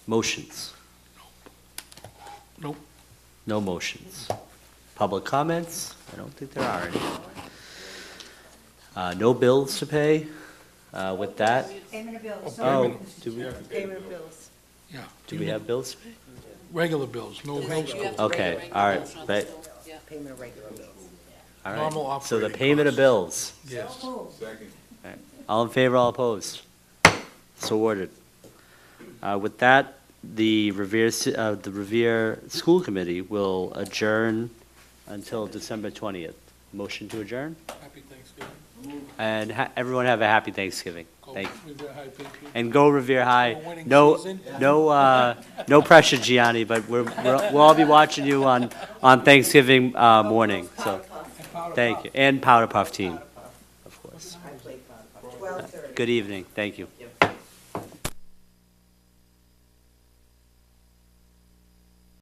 Motions? Nope. No motions. Public comments? I don't think there are any. Uh, No bills to pay? Uh, With that, Payment of bills. oh, Sorry. do we, Payment of bills. Yeah. do we have bills to pay? Regular bills, no homeschool. Okay, all right, but, Payment of regular bills. all Normal right. So the operating payment of costs. bills. Yes. All in favor, all opposed? So ordered. Uh, With that, the Revere, Ci- uh, the Revere School Committee will adjourn until December 20th. Motion to adjourn? Happy Thanksgiving. And ha- everyone have a happy Thanksgiving. Go Thank with the high patriot. And go Revere High. We're winning No, season. no, uh, no pressure, Gianni, but we're, we're- we'll all be watching you on, on Thanksgiving uh, morning, so, And powder puff. thank you. And Powder Puff Team, of course. I played Twelve thirty. Good evening, thank you.